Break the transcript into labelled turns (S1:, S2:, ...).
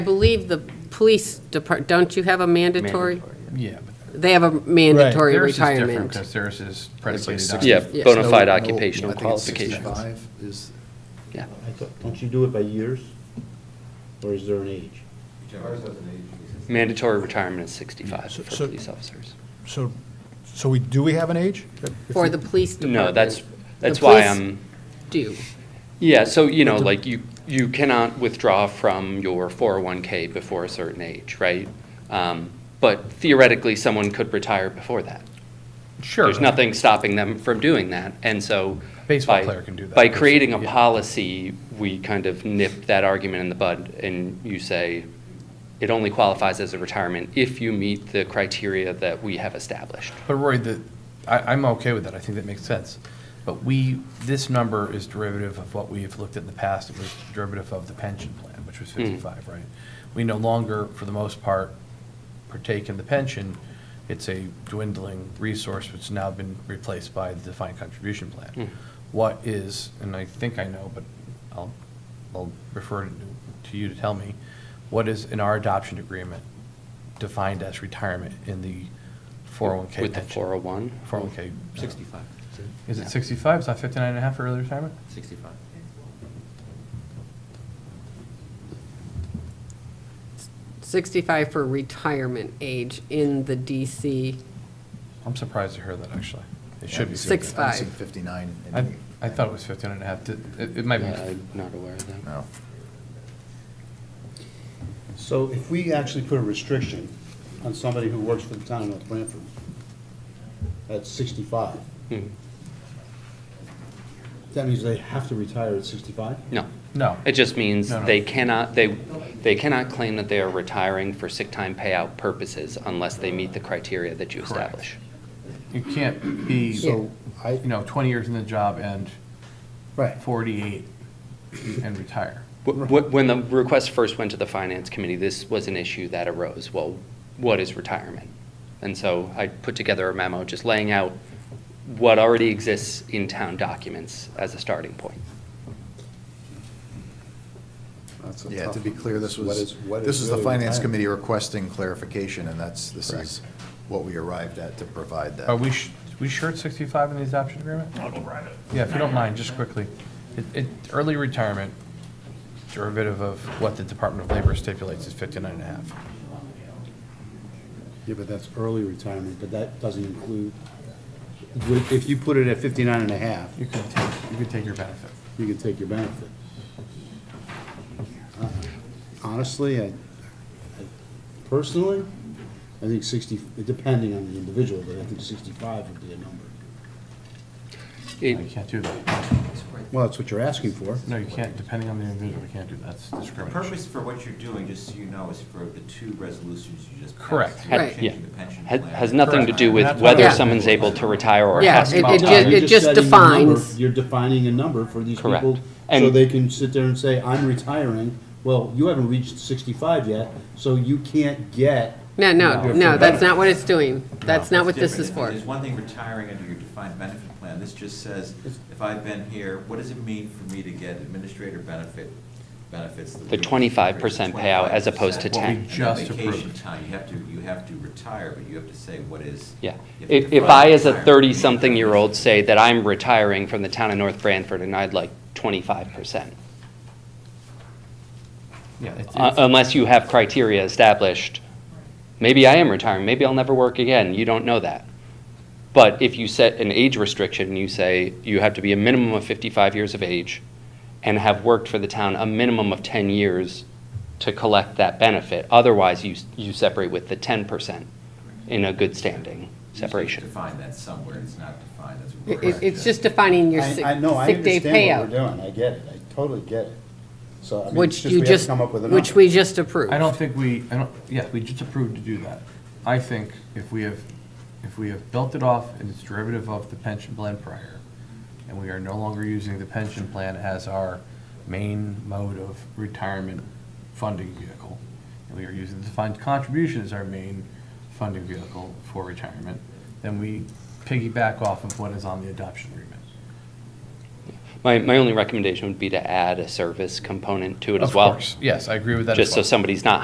S1: I believe the police depart, don't you have a mandatory?
S2: Yeah, but
S1: They have a mandatory
S2: theirs is different
S1: retirement.
S2: because theirs is
S3: It's like
S2: predicated on.
S3: 60
S4: Yeah,
S1: Yeah.
S4: bona fide
S3: No, no,
S4: occupational
S3: I think it's
S4: qualifications.
S3: 65 is-
S4: Yeah.
S5: I thought, don't you do it by years? Or is there an age?
S4: Mandatory retirement is 65
S6: So-
S4: for
S6: so-
S4: police officers.
S6: So, so we, do we have an age? If
S1: For
S6: we-
S1: the police department.
S4: No, that's,
S1: The
S4: that's why
S1: police
S4: I'm,
S1: Do,
S4: yeah, so, you know, like, you, you cannot withdraw from your 401K before a certain age, right? Um, But theoretically, someone could retire before that.
S2: Sure.
S4: There's nothing stopping them from doing that, and so.
S2: Baseball
S4: by-
S2: player can do that.
S4: By creating a
S2: Yeah.
S4: policy, we kind of nip that argument in the bud, and you say, it only qualifies as a retirement if you meet the criteria that we have established.
S2: But Roy, the, I, I'm okay with that. I think that makes sense. But we, this number is derivative of what we've looked at in the past. It was derivative of the pension plan, which was
S4: Hmm.
S2: fifty-five, right? We no longer, for the most part, partake in the pension. It's a dwindling resource which has now been replaced by the defined contribution plan. What is, and I think I know, but I'll, I'll refer to- to you to tell me, what is in our adoption agreement defined as retirement in the four oh one K
S4: With the
S2: pension?
S4: 401?
S2: 401K.
S7: 65.
S2: uh, Is it 65? It's not 59 and a half for early retirement?
S7: 65.
S1: sixty-five for retirement age in the DC.
S2: I'm surprised to hear that, actually. It should be.
S3: I'm seeing-
S1: Six
S2: 65.
S3: I'm
S1: five.
S3: seeing 59.
S2: I,
S3: and-
S2: I thought it was 15 and a half. Did- It, it might
S4: Yeah,
S2: be,
S4: I'm Uh, not aware of that.
S3: No.
S5: So if we actually put a restriction on somebody who works for the town of North Branford at sixty-five,
S4: Mhm.
S5: that means they have to retire at sixty-five?
S4: No.
S2: no.
S4: It just means
S2: No, no.
S4: they cannot, they, they cannot claim that they are retiring for sick time payout purposes unless they meet the criteria that you
S2: Correct.
S4: establish.
S2: You can't be,
S5: So
S2: you
S5: I,
S2: know, 20 years in the job and
S5: right,
S2: 48 and retire.
S4: Wh- wh- When the request first went to the Finance Committee, this was an issue that arose. Well, what is retirement? And so I put together a memo just laying out what already exists in town documents as a starting point.
S5: that's a
S3: Yeah, to
S5: tough
S3: be
S5: one.
S3: clear, this
S5: What
S3: was,
S5: is- what
S3: this is the
S5: really
S3: Finance
S5: retirement?
S3: Committee requesting clarification, and that's, this is what we arrived at to provide
S2: Are
S3: that.
S2: we, sh- we sure it's 65 in the adoption agreement? I'll go it. Yeah, if you don't mind, just quickly. It, it, early retirement derivative of what the Department of Labor stipulates is 59 and a half.
S5: Yeah, but that's early retirement, but that doesn't include, would- if you put it at fifty-nine and a half,
S2: You can take, you can take your benefit.
S5: you can take your benefit. Uh, Honestly, I, I- personally, I think sixty, depending on the individual, but I think sixty-five would be a number.
S4: It-
S2: You can't do that.
S5: Well, that's what you're asking for.
S2: No, you can't, depending on the individual, you can't do that. That's
S7: The
S2: discrimination.
S7: purpose for what you're doing, just so you know, is for the two resolutions you just passed.
S2: Correct.
S7: You're
S1: Right.
S7: Changing
S4: Yeah.
S7: the pension
S4: Ha-
S7: plan.
S4: Has nothing to do with
S2: Correct.
S4: whether
S1: Yeah.
S4: someone's able to retire or
S1: Yeah,
S4: has
S1: it-
S4: to.
S1: it
S4: retire.
S1: ju-
S5: You're
S1: it just
S5: setting a number-
S1: defines-
S5: You're defining a number for these
S4: Correct.
S5: people, so
S4: And-
S5: they can sit there and say, I'm retiring. Well, you haven't reached sixty-five yet, so you can't get.
S1: No, no, no,
S5: your full
S1: that's
S5: benefit.
S1: not what it's doing. That's not what this
S7: different.
S1: is for.
S7: There's one thing retiring under your defined benefit plan. This just says, if I've been here, what does it mean for me to get administrator benefit, benefits? that
S4: The
S7: we-
S4: 25% payout as opposed to
S2: What we
S4: 10.
S7: And then
S2: just
S7: Vacation
S2: approved.
S7: time, you have to, you have to retire, but you have to say what is.
S4: Yeah.
S7: you have to
S4: If, if
S7: define
S4: I, as a
S7: retirement.
S4: 30-something-year-old, say that I'm retiring from the town of North Branford and I'd like 25%,
S2: Yeah, it's-
S4: Uh,
S2: it's-
S4: unless you have criteria established, maybe I am retiring, maybe I'll never work again, you don't know that. But if you set an age restriction, you say you have to be a minimum of 55 years of age and have worked for the town a minimum of 10 years to collect that benefit, otherwise you, s- you separate with the 10% in a good standing
S7: You should
S4: separation.
S7: Define that somewhere. It's not defined. That's what
S1: It-
S7: we're.
S1: it- It's just defining your sick
S5: I, I know, I
S1: sick day
S5: understand what
S1: payout,
S5: we're doing, I get it, I totally get it. So, I mean, it's
S1: which
S5: just we
S1: you
S5: have to
S1: just,
S5: come up with a number.
S1: which we just approved.
S2: I don't think we, I don't, yeah, we just approved to do that. I think if we have, if we have built it off and it's derivative of the pension plan prior, and we are no longer using the pension plan as our main mode of retirement funding vehicle, and we are using the defined contribution as our main funding vehicle for retirement, then we piggyback off of what is on the adoption agreement.
S4: My, my only recommendation would be to add a service component to it as
S2: Of
S4: well.
S2: course, Yes, I agree with that as well.
S4: Just so somebody's not